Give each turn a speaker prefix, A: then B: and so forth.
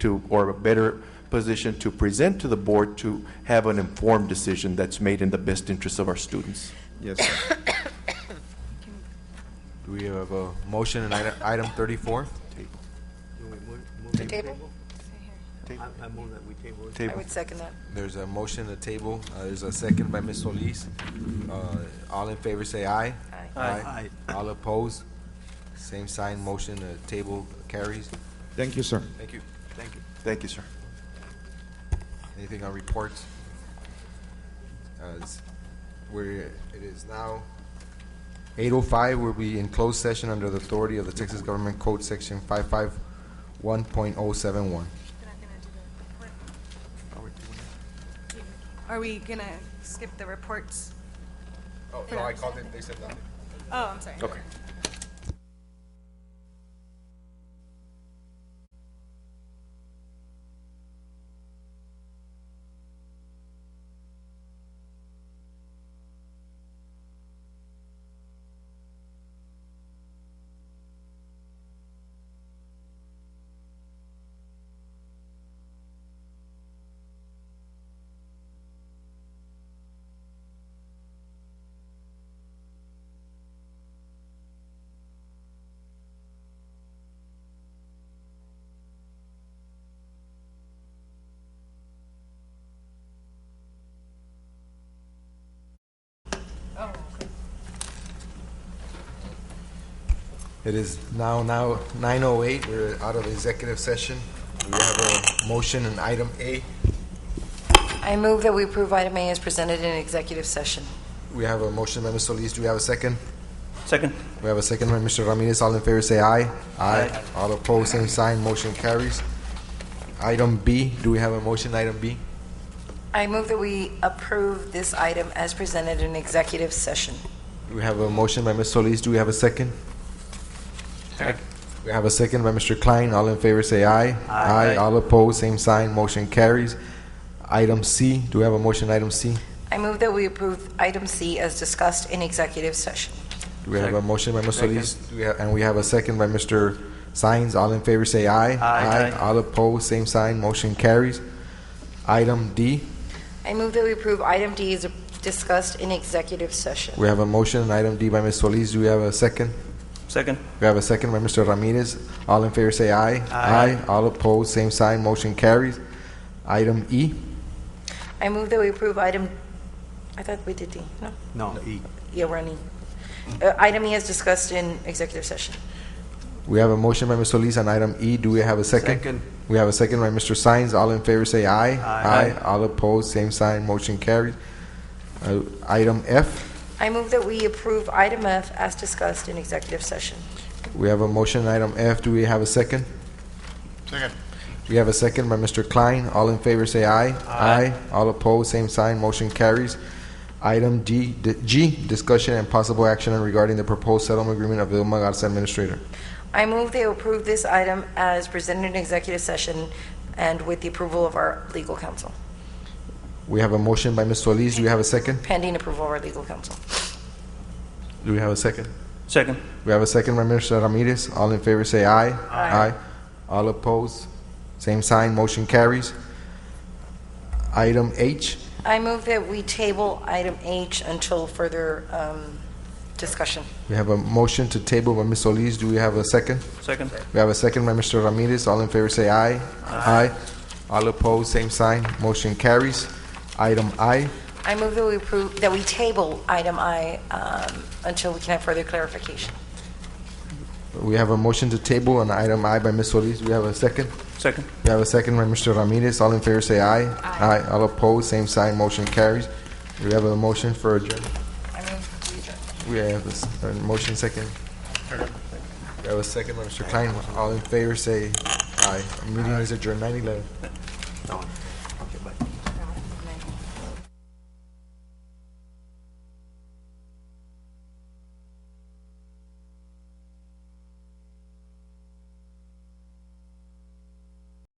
A: to, or a better position to present to the board to have an informed decision that's made in the best interest of our students.
B: Yes, sir.
C: Do we have a motion in item- item 34?
D: To table?
E: I move that we table it.
D: I
A: Table.
D: would second that.
C: There's a motion to table. Uh, There's a second by Ms. Solis. Uh, All in favor, say aye.
D: Aye.
E: Aye.
C: All opposed? Same sign, motion to table carries.
B: Thank you, sir.
C: Thank you.
E: Thank you.
A: Thank you, sir.
C: Anything on reports? Uh, it's- We're, it is now 8:05, we'll be in closed session under the authority of the Texas Government Code, Section 551.071.
F: Are we gonna skip the reports?
C: Oh, no, I called it, they said nothing.
F: Oh, I'm sorry.
A: Okay.
C: It is now, now 9:08, we're out of executive session. We have a motion in item A.
D: I move that we approve item A as presented in executive session.
C: We have a motion by Mr. Solis, do we have a second?
E: Second.
C: We have a second by Mr. Ramirez, all in favor say aye. Aye. All opposed, same sign, motion carries. Item B, do we have a motion, item B?
D: I move that we approve this item as presented in executive session.
C: We have a motion by Ms. Solis, do we have a second? We have a second by Mr. Klein, all in favor say aye. Aye. All opposed, same sign, motion carries. Item C, do we have a motion, item C?
D: I move that we approve item C as discussed in executive session.
C: Do we have a motion by Mr. Solis, Do we have- and we have a second by Mr. Sines. All in favor, say aye.
E: Aye.
C: All opposed, same sign, motion carries. Item D,
D: I move that we approve item D as discussed in executive session.
C: we have a motion, and item D by Ms. Solis. Do we have a second?
E: Second.
C: We have a second by Mr. Ramirez. All in favor, say aye.
E: Aye.
C: All opposed, same sign, motion carries. Item E,
D: I move that we approve item, I thought we did D, no?
E: No, E.
D: Yeah, we're on E. Uh, Item E as discussed in executive session.
C: we have a motion by Ms. Solis on item E. Do we have a second?
E: Second.
C: We have a second by Mr. Sines. All in favor, say aye.
E: Aye.
C: All opposed, same sign, motion carries. Uh, Item F,
D: I move that we approve item F as discussed in executive session.
C: We have a motion, item F. Do we have a second?
G: Second.
C: We have a second by Mr. Klein. All in favor, say aye.
E: Aye.
C: All opposed, same sign. Motion carries. Item D, D- G, discussion and possible action regarding the proposed settlement agreement of Vilma Garza Administrator.
D: I move they approve this item as presented in executive session and with the approval of our legal counsel,
C: We have a motion by Ms. Solis. Do we have a second?
D: pending approval of our legal counsel.
C: Do we have a second?
E: Second.
C: We have a second by Mr. Ramirez. All in favor, say aye.
D: Aye.
C: All opposed, same sign. Motion carries. Item H,
D: I move that we table item H until further um, discussion.
C: we have a motion to table by Ms. Solis. Do we have a second?
E: Second.
C: We have a second by Mr. Ramirez. All in favor say aye. Aye. All opposed, same sign. Motion carries. Item I,
D: I move that we approve, that we table item I um, until we can have further clarification.
C: we have a motion to table on item I by Ms. Solis. We have a second.
E: Second.
C: We have a second by Mr. Ramirez. All in favor say aye. Aye. All opposed, same sign. Motion carries. We have a motion for adjournment.
D: I move we adjourn.
C: We have a s- a motion second. We have a second by Mr. Klein. All in favor say aye. Meeting is adjourned, 9/11.